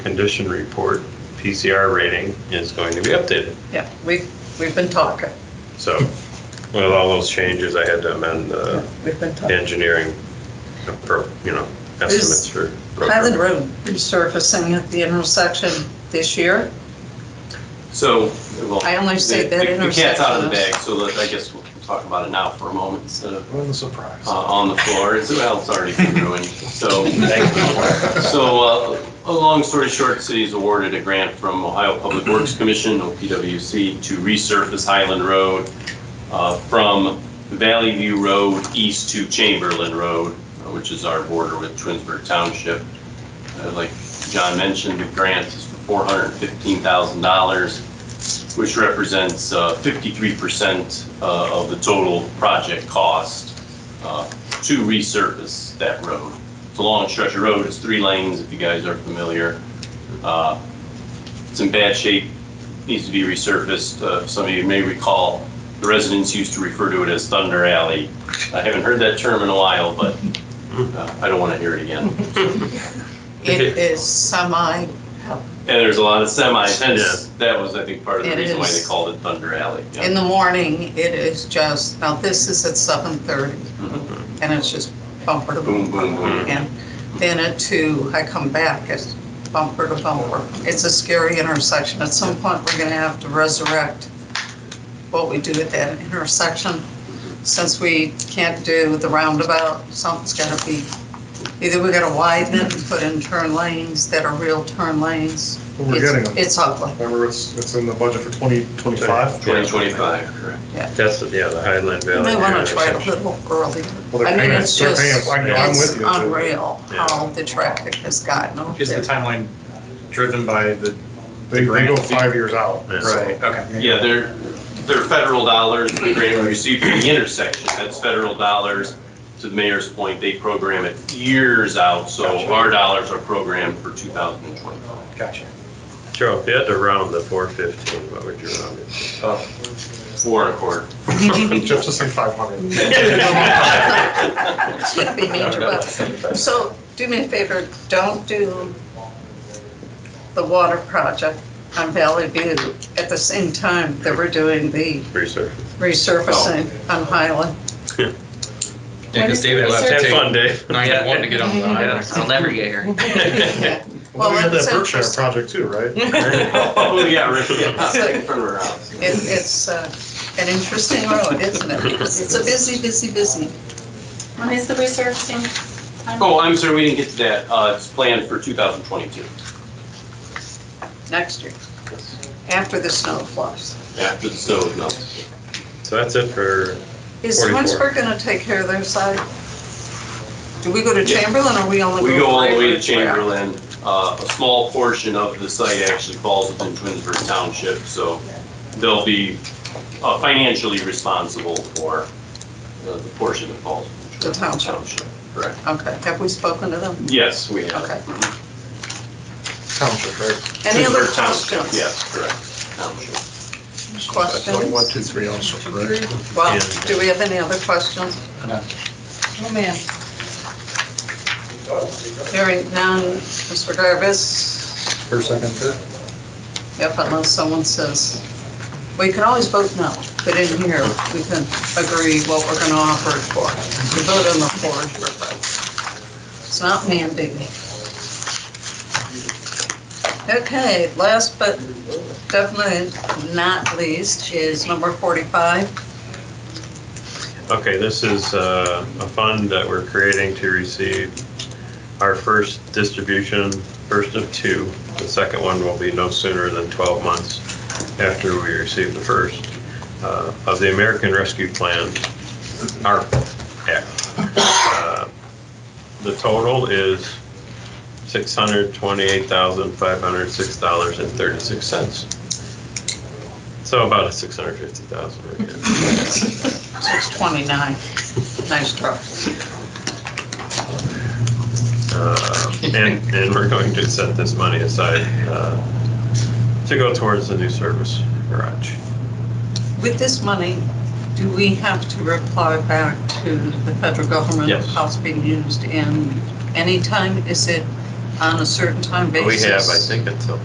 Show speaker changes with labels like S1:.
S1: condition report, PCR rating is going to be updated.
S2: Yeah, we've, we've been talking,
S1: So with all those changes, I had to amend the
S2: we've been talking.
S1: engineering, appro- you know, estimates for. road
S2: Highland
S1: coverage.
S2: Road resurfacing at the intersection this year,
S3: So, well.
S2: I only say
S3: the-
S2: that
S3: the- The cat's out of the
S2: intersection
S3: bag, so let- I guess we'll talk about it now for a moment instead of
S4: What a surprise.
S3: uh, on the floor. It's, well, it's already been ruined. So, so uh, a long story short, city's awarded a grant from Ohio Public Works Commission, OPWC, to resurface Highland Road uh, from Valley View Road east to Chamberlain Road, uh, which is our border with Twinsburg Township. Uh, Like John mentioned, the grant is for $415,000, which represents uh, 53% uh, of the total project cost uh, to resurface that road. It's a long stretch of road, it's three lanes, if you guys are familiar. Uh, It's in bad shape, needs to be resurfaced. Uh, Some of you may recall, the residents used to refer to it as Thunder Alley. I haven't heard that term in a while, but uh, I don't want to hear it again.
S2: it is semi,
S3: And there's a lot of semis, hence,
S1: Yeah.
S3: that was, I think, part of the
S2: It
S3: reason why
S2: is.
S3: they called it Thunder Alley. Yeah.
S2: in the morning, it is just, now this is at seven thirty,
S3: Mhm.
S2: and it's just bumper to
S3: Boom,
S2: bumper.
S3: boom, boom.
S2: And then at two, I come back, it's bumper to bumper. It's a scary intersection. At some point, we're gonna have to resurrect what we do at that intersection. Since we can't do the roundabout, something's gotta be, either we gotta widen it and put in turn lanes that are real turn lanes.
S4: Well, We're
S2: It's-
S4: getting them.
S2: It's ugly.
S4: Remember, it's, it's in the budget for 2025.
S3: 2025, correct.
S1: That's, yeah, the Highland Valley.
S2: They wanna try it a
S1: intersection.
S2: little earlier.
S4: Well,
S2: I
S4: they're
S2: mean,
S4: paying,
S2: it's
S4: they're paying,
S2: just-
S4: I know, I'm
S2: It's
S4: with you.
S2: unreal how the traffic has gotten over
S5: Is the
S2: there.
S5: timeline driven by the,
S4: They, they go five years out.
S1: Yeah.
S4: so-
S5: right, okay.
S3: Yeah, they're, they're federal dollars, the grant we received from the intersection, that's federal dollars. To the mayor's point, they program it years out, so our dollars are programmed for 2020.
S5: Gotcha.
S1: Joe, if you had to round the four fifteen, what would you round it? to?
S3: Four and a quarter.
S4: Just to say 500.
S3: Oh,
S2: It's gonna be major, but- So do me a favor, don't do the water project on Valley View at the same time that we're doing the
S1: Research.
S2: resurfacing on Highland.
S6: Yeah, because David will have to
S1: Have fun,
S6: take
S1: Dave.
S6: nine one to get on the island. I'll never get here.
S2: Yeah.
S4: Well,
S2: Well,
S4: we had
S2: it's
S4: that Berkshire
S2: interesting.
S4: project too, right?
S3: Oh, yeah, Rick, yeah. Turn around.
S2: It, it's uh, an interesting road, isn't it? It's a busy, busy, busy.
S7: When is the resurfacing?
S3: Oh, I'm sorry, we didn't get to that, uh, it's planned for 2022,
S2: Next year, after the snow flush.
S3: after the snow melts.
S1: So that's it for,
S2: Is
S1: 44.
S2: Twinsburg gonna take care of their side? Do we go to Chamberlain or we only go?
S3: We go all the way to
S2: Braeburn?
S3: Chamberlain, uh, a small portion of the site actually falls within Twinsburg Township, so they'll be uh, financially responsible for uh, the portion that falls
S2: The
S3: within Twinsburg
S2: township.
S3: Township. Correct.
S2: Okay, have we spoken to them?
S3: Yes, we have.
S2: Okay.
S4: Township, right?
S2: Any other
S3: Twinsburg Township,
S2: questions?
S3: Yes, correct. Township.
S4: Like one,
S2: Questions?
S4: two, three also, right?
S2: Well, do we have any other questions?
S5: No.
S2: Oh, man. Hearing none, Mr. Garvis,
S4: First, second, third.
S2: yep, unless someone says, we can always vote no, but in here, we can agree what we're gonna offer it for. We vote on the floor. for it. It's not mandated. Okay, last but definitely not least is number 45.
S1: okay, this is uh, a fund that we're creating to receive our first distribution, first of two. The second one will be no sooner than 12 months after we receive the first uh, of the American Rescue Plan, ARP Act. Uh, The total is $628,506.36. So about a 650,000 right here.
S2: 629. Nice truck.
S1: Uh, And, and we're going to set this money aside uh, to go towards the new service garage.
S2: With this money, do we have to reply back to the federal government?
S1: Yes.
S2: How it's being used and anytime, is it
S8: on a certain time
S2: We have,
S8: basis.
S2: I think, until